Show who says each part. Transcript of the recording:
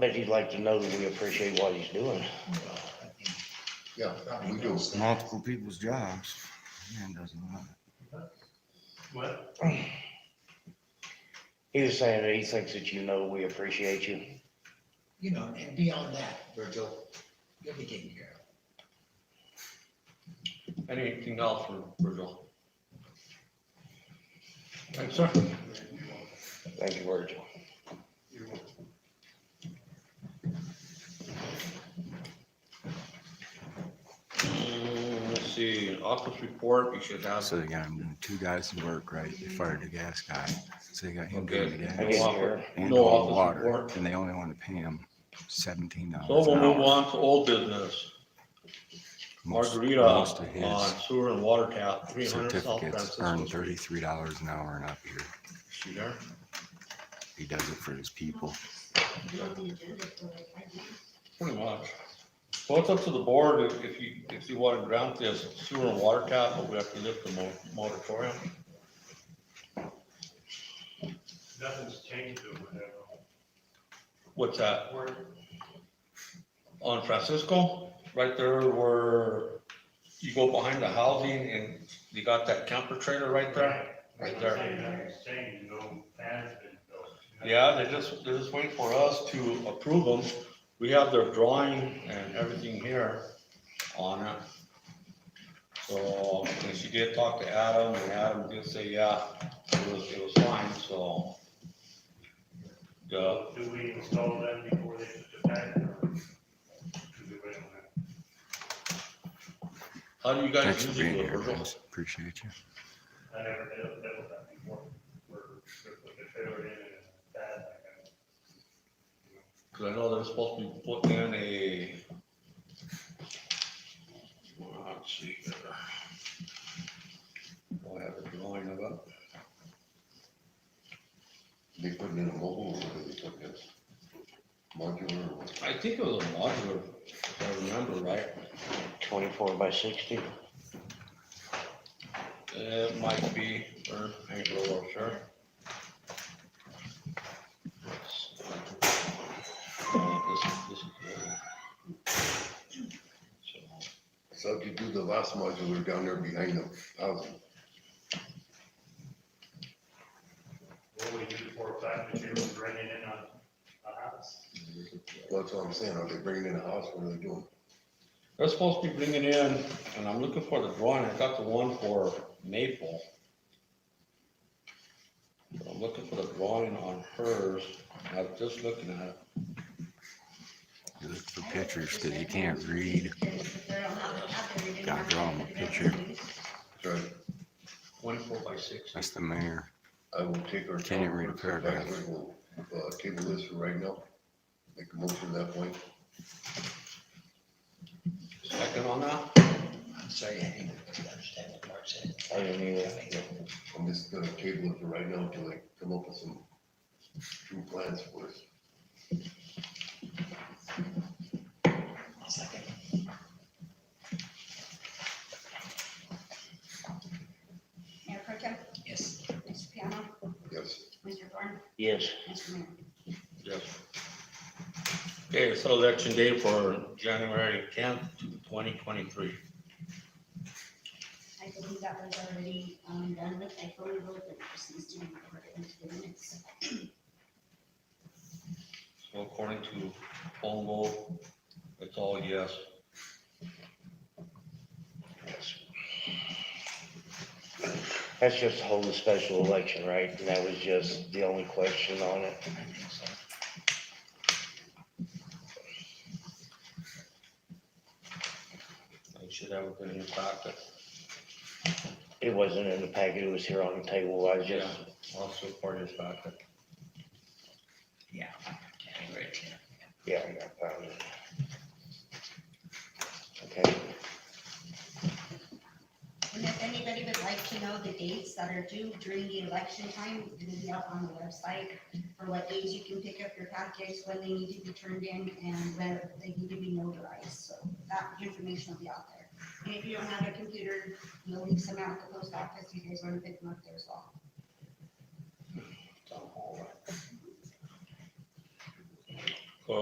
Speaker 1: bet he'd like to know that we appreciate what he's doing.
Speaker 2: Yeah, we do.
Speaker 3: multiple people's jobs. Man doesn't want
Speaker 4: What?
Speaker 1: He was saying that he thinks that you know we appreciate you.
Speaker 5: you know, and beyond that, Virgil, you'll be taken care of.
Speaker 6: Anything else for Virgil?
Speaker 4: Thanks, sir.
Speaker 1: Thank you, Virgil.
Speaker 6: Mm, Let's see, office report, you should
Speaker 3: it.
Speaker 6: have.
Speaker 3: So they got him doing two guys to work, right? They fired the gas guy. So they got him doing the
Speaker 6: Okay.
Speaker 3: gas.
Speaker 1: I guess you're-
Speaker 3: And
Speaker 6: No
Speaker 3: all the
Speaker 6: office
Speaker 3: water,
Speaker 6: report.
Speaker 3: and they only want to pay him seventeen dollars.
Speaker 6: So we'll
Speaker 3: an
Speaker 6: move
Speaker 3: hour.
Speaker 6: on to old business.
Speaker 3: Most-
Speaker 6: Margarita
Speaker 3: most of
Speaker 6: on sewer and water tap, three
Speaker 3: his
Speaker 6: hundred South
Speaker 3: Certificates
Speaker 6: Francis.
Speaker 3: earn
Speaker 6: was-
Speaker 3: thirty-three dollars an hour and up here.
Speaker 6: She there?
Speaker 3: He does it for his people.
Speaker 6: Pretty much. Well, it's up to the board if- if you, if you want to grant this sewer and water tap, but we have to lift the mo- moratorium.
Speaker 4: Nothing's changed or whatever.
Speaker 6: What's that?
Speaker 4: We're,
Speaker 6: On Francisco, right there where you go behind the housing and you got that camper trailer right there. Right there.
Speaker 4: Nothing's changed, no plans been built.
Speaker 6: Yeah, they just, they're just waiting for us to approve them. We have their drawing and everything here on it. So, and she did talk to Adam, and Adam did say, yeah, it was, it was fine, so. Yeah,
Speaker 4: So Do we install them before they put the back or? do we wait on that?
Speaker 6: how do you
Speaker 3: Thanks
Speaker 6: guys
Speaker 3: for
Speaker 6: usually
Speaker 3: being
Speaker 6: do it,
Speaker 3: here,
Speaker 6: Virgil?
Speaker 3: guys. Appreciate you.
Speaker 4: I never dealt, dealt with that before. We're, we're putting a trailer in and it's bad.
Speaker 6: Cause I know they're supposed to be putting in a. ah, Well, Let's see. here. Do I have a drawing of it.
Speaker 2: They put in a mobile, or what they put this modular, or what?
Speaker 6: I think it was a modular, if I remember right.
Speaker 1: Twenty-four by sixty.
Speaker 6: It might be, or ain't real well sure. Uh, this is- this is good. So,
Speaker 2: so if you do the last modular down there behind the housing,
Speaker 4: What do we do for a fact that you're bringing in a, a house?
Speaker 2: that's what I'm saying, are they bringing in a house, what are they doing?
Speaker 6: They're supposed to be bringing in, and I'm looking for the drawing, I got the one for Maple. But I'm looking for the drawing on hers, I was just looking at it.
Speaker 3: You look for pictures because you can't read.
Speaker 7: Gotta draw him a picture.
Speaker 2: Sorry,
Speaker 6: Twenty-four by six.
Speaker 3: That's the mayor.
Speaker 2: I will take our.
Speaker 3: Can't even read a paragraph.
Speaker 2: We'll, Uh, table this for right now, make a motion at that point,
Speaker 6: Second on that?
Speaker 5: I'm sorry, I didn't really understand what Mark said.
Speaker 1: I didn't either.
Speaker 2: I'm just gonna table it for right now till I come up with some true plans for us.
Speaker 5: I'll second.
Speaker 7: Mayor Protem,
Speaker 5: Yes,
Speaker 7: Mr. Piano,
Speaker 2: Yes,
Speaker 7: Mr. Thorne,
Speaker 1: Yes,
Speaker 7: Mr. Mayor.
Speaker 6: Yes. Okay, so election day for January tenth to twenty twenty-three.
Speaker 7: I believe that was already um, done with, I voted with, but it just needs to be recorded into the minutes.
Speaker 6: So according to phone vote, it's all yes.
Speaker 1: that's just to hold a special election, right? And that was just the only question on it.
Speaker 5: I think so.
Speaker 6: I should have it in your packet.
Speaker 1: It wasn't in the packet, it was here on the table, I was just,
Speaker 6: Also part of your packet.
Speaker 5: Yeah. January tenth.
Speaker 1: yeah, I found it. Okay,
Speaker 7: And if anybody would like to know the dates that are due during the election time, it's gonna be up on the website for what days you can pick up your packets, when they need to be turned in, and when they need to be notarized, so that information will be out there. And if you don't have a computer, we'll leave some out at the post office, you guys wanna pick them up there as well.
Speaker 6: Town hall, right?